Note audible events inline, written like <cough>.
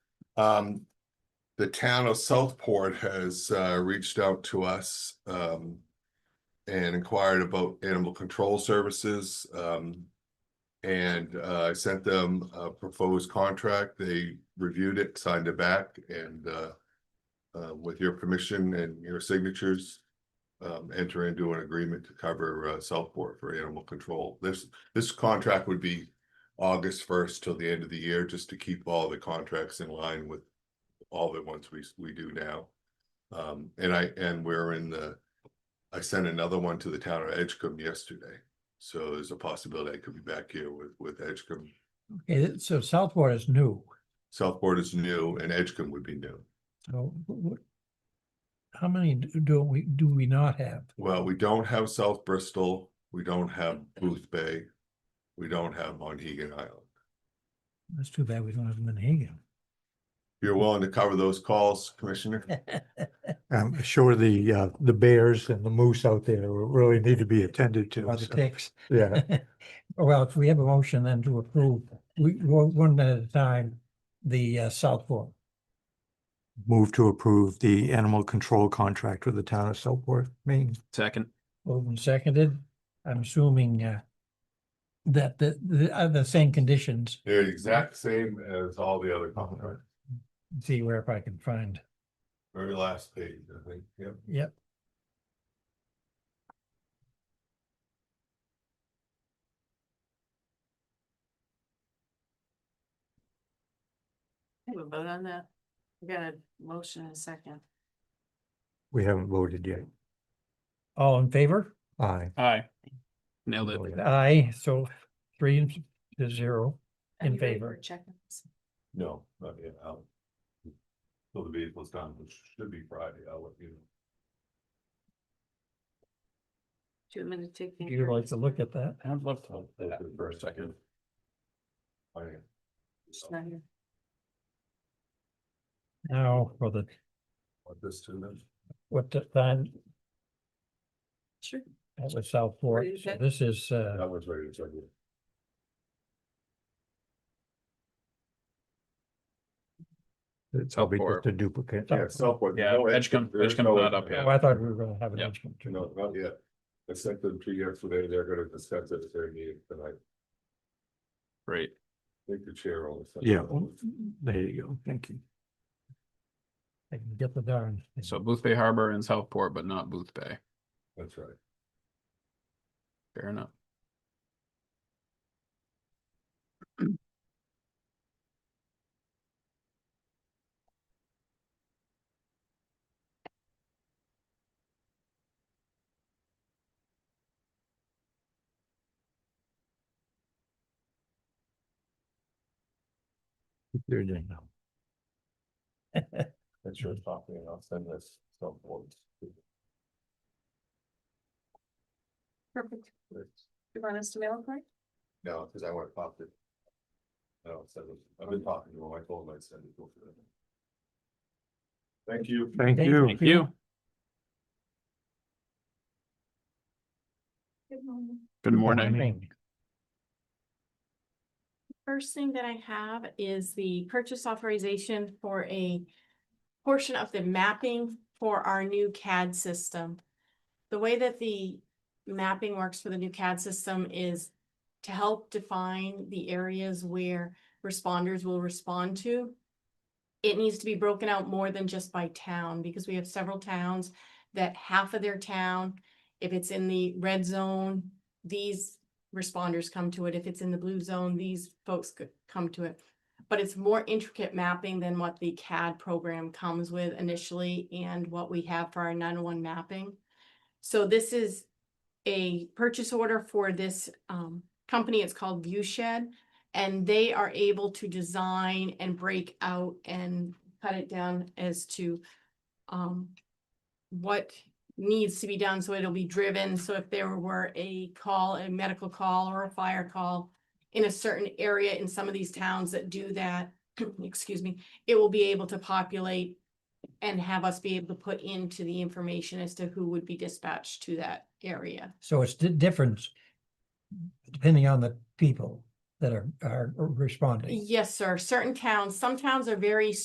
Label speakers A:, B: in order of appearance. A: Um, the town of Southport has, uh, reached out to us, um, and inquired about animal control services, um, and, uh, I sent them a proposed contract. They reviewed it, signed it back, and, uh, uh, with your permission and your signatures, um, enter into an agreement to cover, uh, Southport for animal control. This, this contract would be August first till the end of the year, just to keep all the contracts in line with all the ones we, we do now. Um, and I, and we're in the, I sent another one to the town of Edgecombe yesterday. So there's a possibility I could be back here with, with Edgecombe.
B: Okay, th- so Southport is new,
A: Southport is new and Edgecombe would be new.
B: so what? How many d- do we, do we not have?
A: Well, we don't have South Bristol, we don't have Booth Bay, we don't have Monhegan Island.
B: That's too bad we don't have Manhegan.
A: You're willing to cover those calls, Commissioner?
C: I'm sure the, uh, the bears and the moose out there will really need to be attended to.
B: Or the
C: so,
B: ticks. <laughs>
C: Yeah,
B: Well, if we have a motion then to approve, we, go one at a time, the uh, Southport.
C: move to approve the animal control contract with the town of Southport, Maine.
D: Second,
B: Moved and seconded, I'm assuming uh. That the, the, are the same conditions,
A: They're the exact same as all the other contracts.
B: see where if I can find,
A: Very last page, I think, yep.
B: yep.
E: Have a vote on that? We got a motion and a second.
C: We haven't voted yet.
B: All in favor?
C: Aye.
D: aye. Nailed it.
B: Aye, so three to zero.
E: Are
B: In
E: you ready
B: favor.
E: for Checking. this?
A: No, not yet, I'll. Till the vehicle's done, which should be Friday, I'll let you know.
E: Do you want me to take? the
B: If you'd like to look at that.
D: I'd love
A: I'll look at it For a second. I-
E: She's not here.
B: Now for the,
A: Want this to them?
B: what the time,
E: Sure.
B: that was South Fork,
E: Where is
B: so
E: that?
B: this is, uh,
A: That one's ready to second.
C: It's probably
D: Southport.
C: just a duplicate.
A: Yeah, Southport.
D: Yeah,
A: no,
D: Edgecombe-
A: there's
D: Edgecombe's
A: no
D: not up
A: Edgecombe.
B: oh, I thought we were gonna have an
D: Yeah.
B: instrument.
A: No, not yet. I sent them to you yesterday, they're gonna discuss it at their meeting tonight,
D: Great.
A: I think the chair will. send
C: Yeah,
A: it.
C: there you go. Thank you.
B: I can get the darn. thing.
D: So Booth Bay Harbor and Southport, but not Booth Bay.
A: That's right.
D: Fair enough.
C: You're doing now.
A: That's your copy, and I'll send this Southport.
E: Perfect. You want us to mail it, right?
A: No, because I want to pop it. I don't send it, I've been talking to him, I told him I'd send it. over there. Thank you.
C: Thank
B: Thank
C: you.
D: Thank you.
E: Good morning.
D: Good morning.
E: First thing that I have is the purchase authorization for a portion of the mapping for our new CAD system. The way that the mapping works for the new CAD system is to help define the areas where responders will respond to. It needs to be broken out more than just by town, because we have several towns that half of their town, if it's in the red zone, these responders come to it. If it's in the blue zone, these folks could come to it. But it's more intricate mapping than what the CAD program comes with initially and what we have for our 901 mapping. So this is a purchase order for this um, company. It's called Viewshed. And they are able to design and break out and cut it down as to um, what needs to be done, so it'll be driven, so if there were a call, a medical call or a fire call in a certain area in some of these towns that do that, <clears throat> excuse me, it will be able to populate and have us be able to put into the information as to who would be dispatched to that area.
B: So it's the difference depending on the people that are, are responding.
E: Yes, sir, certain towns, some towns are very